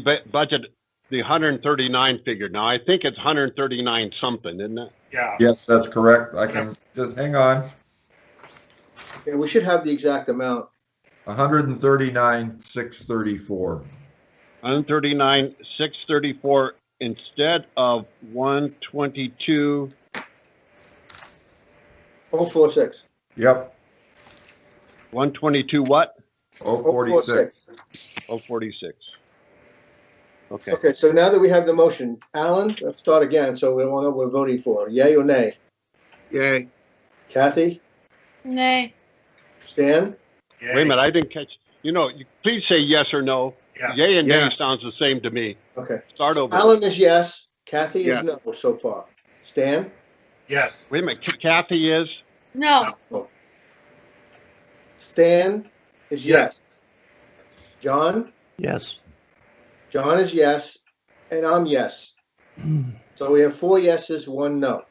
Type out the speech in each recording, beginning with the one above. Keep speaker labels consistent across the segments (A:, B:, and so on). A: bu- budget the hundred and thirty-nine figure. Now, I think it's hundred and thirty-nine something, isn't it?
B: Yeah,
C: Yes, that's correct. I can, just hang on.
D: Yeah, we should have the exact amount.
C: hundred and thirty-nine, six thirty-four.
A: Hundred thirty-nine, six thirty-four instead of one twenty-two.
D: Oh, four, six.
C: Yep,
A: One twenty-two what?
C: oh,
D: Oh, four,
C: forty-six.
A: Oh, forty-six. Okay,
D: Okay, so now that we have the motion, Alan, let's start again, so we want to know what we're voting for. Yay or nay?
A: yay.
D: Kathy?
E: Nay.
D: Stan?
B: yeah,
A: Wait a minute, I didn't catch, you know, you- please say yes or no.
B: Yeah.
A: Yay and nay sounds the same to me.
D: Okay.
A: Start over.
D: Alan is yes, Kathy is no so far. Stan?
B: Yes,
A: Wait a minute, Kathy is?
E: No.
D: Stan is yes. John?
F: Yes.
D: John is yes, and I'm yes. So we have four yeses, one no.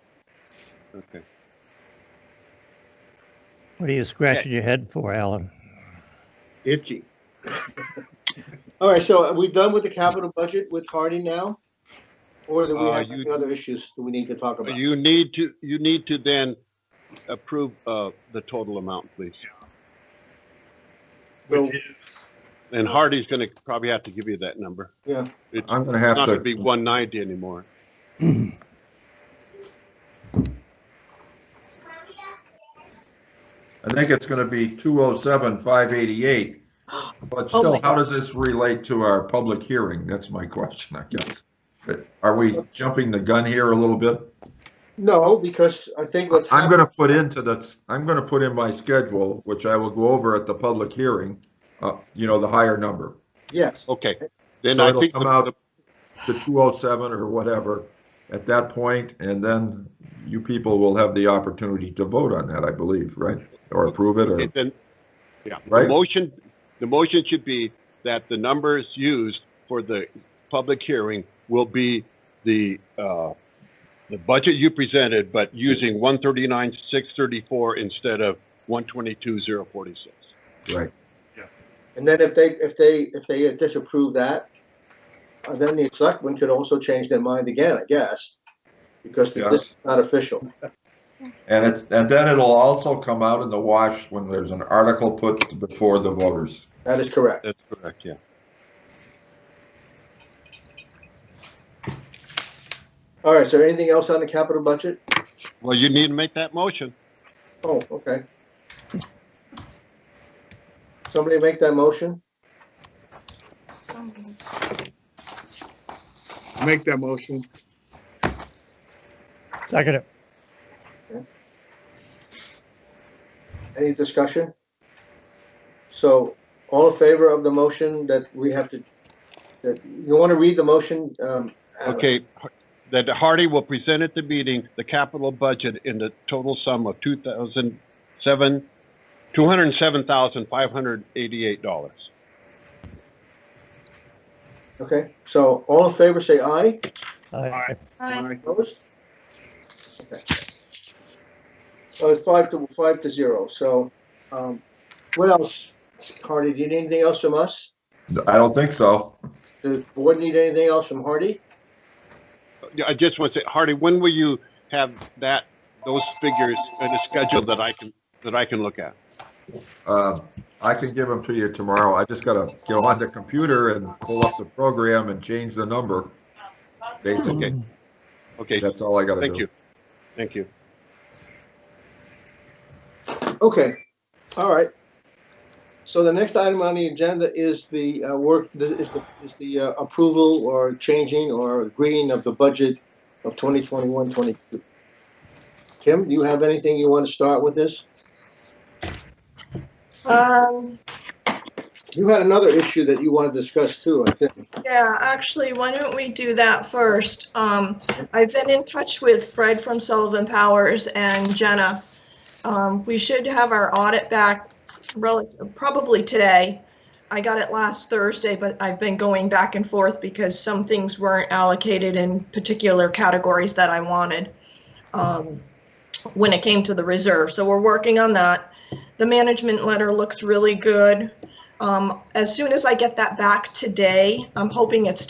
A: Okay.
F: What are you scratching your head for, Alan?
A: Itchy.
D: All right, so are we done with the capital budget with Harding now? Or do we
A: Uh,
D: have
A: you-
D: any other issues that we need to talk about?
A: You need to, you need to then approve, uh, the total amount, please.
B: which is,
A: And Hardy's gonna probably have to give you that number.
D: Yeah.
A: It's
C: I'm gonna
A: not
C: have
A: gonna be
C: to,
A: one ninety anymore.
C: I think it's gonna be two oh seven, five eighty-eight. But
D: Oh,
C: still, how does this relate to our public hearing? That's my question, I guess. But are we jumping the gun here a little bit?
D: No, because I think what's
C: I'm
D: happening,
C: gonna put into the, I'm gonna put in my schedule, which I will go over at the public hearing, uh, you know, the higher number.
D: yes,
A: Okay, then
C: So
A: I
C: it'll
A: think,
C: come
A: the-
C: out to 207 or whatever at that point, and then you people will have the opportunity to vote on that, I believe, right? Or approve it, or,
A: the- then, yeah, the
C: Right.
A: motion, the motion should be that the numbers used for the public hearing will be the, uh, the budget you presented, but using one thirty-nine, six thirty-four instead of one twenty-two, zero forty-six.
C: right?
D: and then if they, if they, if they disapprove that, uh, then the selectmen could also change their mind again, I guess, because
C: Yeah.
D: this is not official.
C: And it's, and then it'll also come out in the wash when there's an article put before the voters.
D: That is correct.
A: That's correct, yeah.
D: All right, so anything else on the capital budget?
A: Well, you need to make that motion.
D: Oh, okay. Somebody make that motion?
G: Make that motion.
F: Second it.
D: Any discussion? So, all in favor of the motion that we have to, that, you want to read the motion? um, Alan?
A: Okay, that Hardy will present at the meeting the capital budget in the total sum of two thousand seven, two hundred and seven thousand five hundred eighty-eight dollars.
D: Okay, so all in favor, say aye.
F: I-
E: Aye.
D: Opposed? Okay. So it's five to, five to zero, so, um, what else? Hardy, do you need anything else from us?
C: I don't think so.
D: Does the board need anything else from Hardy?
A: Yeah, I just want to say, Hardy, when will you have that, those figures in a schedule that I can, that I can look at?
C: Uh, I can give them to you tomorrow. I just gotta get on the computer and pull up the program and change the number. Basically,
A: Okay,
C: Mm-hmm. that's all I gotta do.
A: thank you. Thank you.
D: Okay, all right. So the next item on the agenda is the, uh, work, the- is the, is the uh, approval or changing or agreeing of the budget of 2021, 22. Kim, do you have anything you want to start with this?
H: Um,
D: You had another issue that you want to discuss too, I think.
H: yeah, actually, why don't we do that first? Um, I've been in touch with Fred from Sullivan Powers and Jenna. Um, we should have our audit back relative, probably today. I got it last Thursday, but I've been going back and forth because some things weren't allocated in particular categories that I wanted. Um, when it came to the reserve, so we're working on that. The management letter looks really good. Um, as soon as I get that back today, I'm hoping it's